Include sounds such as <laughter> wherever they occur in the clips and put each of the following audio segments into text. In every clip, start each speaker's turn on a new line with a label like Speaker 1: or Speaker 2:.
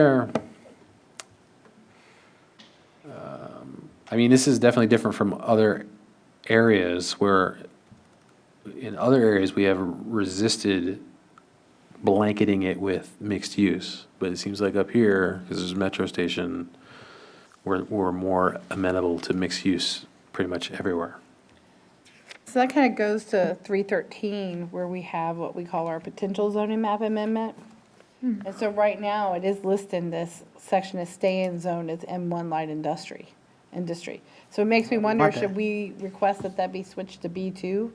Speaker 1: there, um, I mean, this is definitely different from other areas where, in other areas, we have resisted blanketing it with mixed use. But it seems like up here, because there's a metro station, we're, we're more amenable to mixed use pretty much everywhere.
Speaker 2: So that kind of goes to three thirteen, where we have what we call our potential zoning map amendment. And so right now, it is listed in this section as stay-in zone as M one light industry, industry. So it makes me wonder, should we request that that be switched to B two,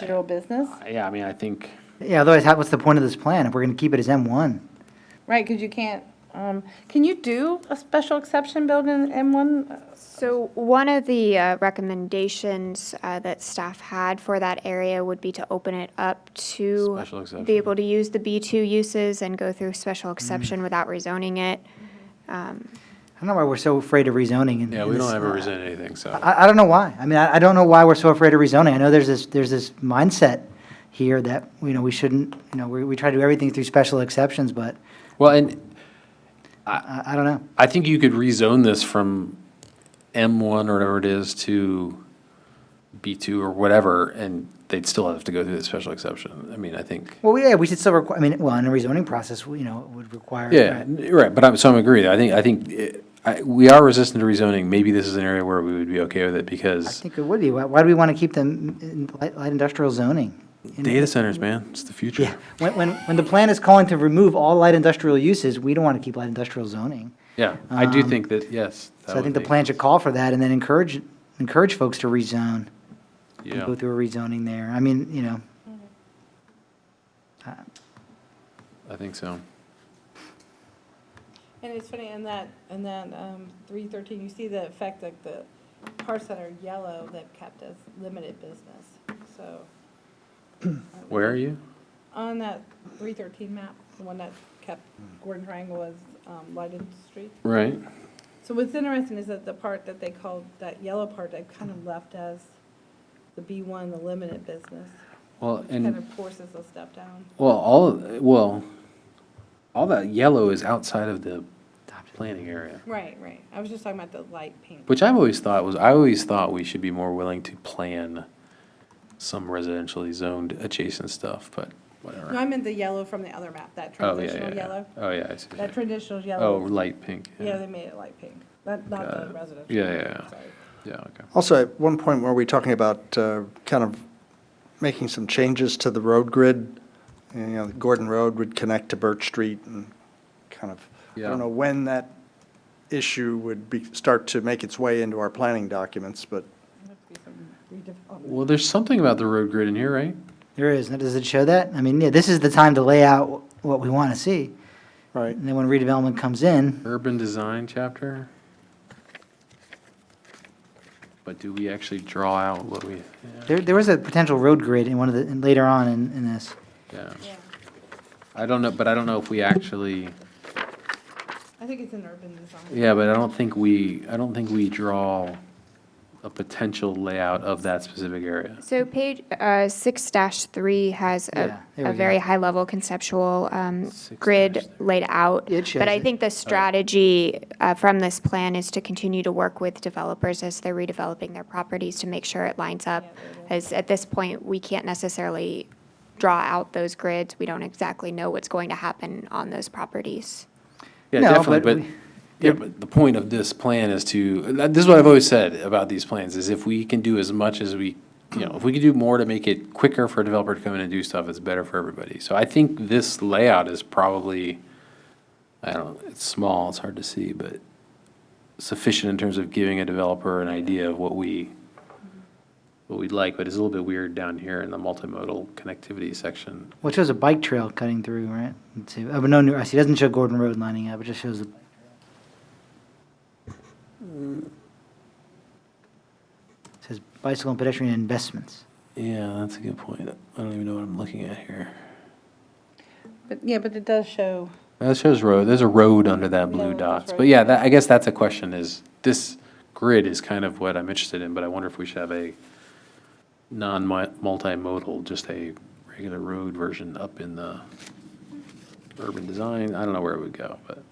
Speaker 2: general business?
Speaker 1: Yeah, I mean, I think,
Speaker 3: Yeah, otherwise, how, what's the point of this plan if we're going to keep it as M1?
Speaker 2: Right, because you can't, um, can you do a special exception built in M one?
Speaker 4: So one of the uh, recommendations uh, that staff had for that area would be to open it up to
Speaker 1: Special exception. Mm.
Speaker 4: be able to use the B2 uses and go through special exception without rezoning it.
Speaker 3: I don't know why we're so afraid of rezoning. in-
Speaker 1: yeah,
Speaker 3: in
Speaker 1: we
Speaker 3: this-
Speaker 1: don't ever resent anything, so.
Speaker 3: I, I don't know why. I mean, I, I don't know why we're so afraid of rezoning. I know there's this, there's this mindset here that, you know, we shouldn't, you know, we, we try to do everything through special exceptions, but
Speaker 1: Well, and
Speaker 3: I, I don't know.
Speaker 1: I think you could rezone this from M1 or whatever it is to B2 or whatever, and they'd still have to go through the special exception. I mean, I think.
Speaker 3: Well, yeah, we should still require, I mean, well, in a rezoning process, we- you know, it would require.
Speaker 1: Yeah,
Speaker 3: right.
Speaker 1: n- right, but I'm, so I'm agree. I think, I think, eh, I, we are resistant to rezoning. Maybe this is an area where we would be okay with it
Speaker 3: I
Speaker 1: because
Speaker 3: think it would be. Why, why do we want to keep them in light, light industrial zoning? In-
Speaker 1: data centers, man, it's the
Speaker 3: Yeah,
Speaker 1: future.
Speaker 3: when, when, when the plan is calling to remove all light industrial uses, we don't want to keep light industrial zoning.
Speaker 1: Yeah, I do
Speaker 3: Um,
Speaker 1: think that, yes. that
Speaker 3: So I
Speaker 1: would
Speaker 3: think the
Speaker 1: be-
Speaker 3: plan should call for that and then encourage, encourage folks to rezone, and
Speaker 1: Yeah.
Speaker 3: go through a rezoning there. I mean, you know. Uh,
Speaker 1: I think so.
Speaker 2: And it's funny, in that, in that, um, three thirteen, you see the effect that the parts that are yellow, they've kept as limited business, so.
Speaker 1: <clears throat> Where are you?
Speaker 2: On that three thirteen map, the one that kept Gordon Triangle as, um, light industry.
Speaker 1: Right.
Speaker 2: So what's interesting is that the part that they called, that yellow part, they kind of left as the B one, the limited business,
Speaker 1: Well, and.
Speaker 2: kind of forces a step down.
Speaker 1: Well, all of- well, all that yellow is outside of the planning area,
Speaker 2: Right, right, I was just talking about the light pink.
Speaker 1: which I've always thought was I always thought we should be more willing to plan some residentially zoned adjacent stuff, but
Speaker 2: No,
Speaker 1: whatever.
Speaker 2: I meant the yellow from the other map, that
Speaker 1: Oh yeah, yeah,
Speaker 2: transitional
Speaker 1: yeah.
Speaker 2: yellow.
Speaker 1: Oh yeah, I see. what you're
Speaker 2: That
Speaker 1: saying.
Speaker 2: traditional
Speaker 1: Oh,
Speaker 2: yellow,
Speaker 1: light pink.
Speaker 2: yeah, they made it light pink, not, not
Speaker 1: Got
Speaker 2: the
Speaker 1: it.
Speaker 2: residential.
Speaker 1: Yeah, yeah,
Speaker 2: sorry.
Speaker 1: yeah. Okay.
Speaker 5: Also, at one point, were we talking about uh, kind of making some changes to the road grid? You know, Gordon Road would connect to Birch Street and kind of, I
Speaker 1: Yeah.
Speaker 5: don't know when that issue would be, start to make its way into our planning documents, but
Speaker 2: It'd have to be some redevelopment.
Speaker 1: Well, there's something about the road grid in here, right?
Speaker 3: There is, now, does it show that? I mean, yeah, this is the time to lay out what we want to see.
Speaker 5: Right.
Speaker 3: And then when redevelopment comes in,
Speaker 1: Urban design chapter. But do we actually draw out what we?
Speaker 3: there, there was a potential road grid in one of the, in- later on in, in this.
Speaker 1: Yeah.
Speaker 2: Yeah,
Speaker 1: I don't know, but I don't know if we actually.
Speaker 2: I think it's an urban design.
Speaker 1: Yeah, but I don't think we, I don't think we draw a potential layout of that specific area.
Speaker 4: So page uh, 6-3 has
Speaker 3: Yeah,
Speaker 4: a
Speaker 3: there
Speaker 4: a
Speaker 3: we
Speaker 4: very
Speaker 3: go.
Speaker 4: high-level conceptual um, grid
Speaker 1: 6-3.
Speaker 4: laid out.
Speaker 3: It shows
Speaker 4: But I
Speaker 3: it.
Speaker 4: think the strategy uh, from this plan is to continue to work with developers as they're redeveloping their properties to make sure it lines up. As at this point, we can't necessarily draw out those grids. We don't exactly know what's going to happen on those properties.
Speaker 1: Yeah,
Speaker 3: No,
Speaker 1: definitely,
Speaker 3: but
Speaker 1: but,
Speaker 3: we-
Speaker 1: yeah, but the point of this plan is to, that- this is what I've always said about these plans, is if we can do as much as we, you know, if we can do more to make it quicker for a developer to come in and do stuff, it's better for everybody. So I think this layout is probably, I don't, it's small, it's hard to see, but sufficient in terms of giving a developer an idea of what we, what we'd like, but it's a little bit weird down here in the multimodal connectivity section.
Speaker 3: Well, it shows a bike trail cutting through, right? Let's see. Oh, but no, new- I see, it doesn't show Gordon Road lining up, it just shows the bike trail. Says bicycle and pedestrian investments.
Speaker 1: Yeah, that's a good point. I don't even know what I'm looking at here.
Speaker 2: But, yeah, but it does show.
Speaker 1: That shows road, there's a road under that
Speaker 2: Yeah,
Speaker 1: blue
Speaker 2: there's
Speaker 1: dots, but
Speaker 2: road.
Speaker 1: yeah, that, I guess that's a question is, this grid is kind of what I'm interested in, but I wonder if we should have a non-multimodal, just a regular road version up in the urban design, I don't know where it would go, but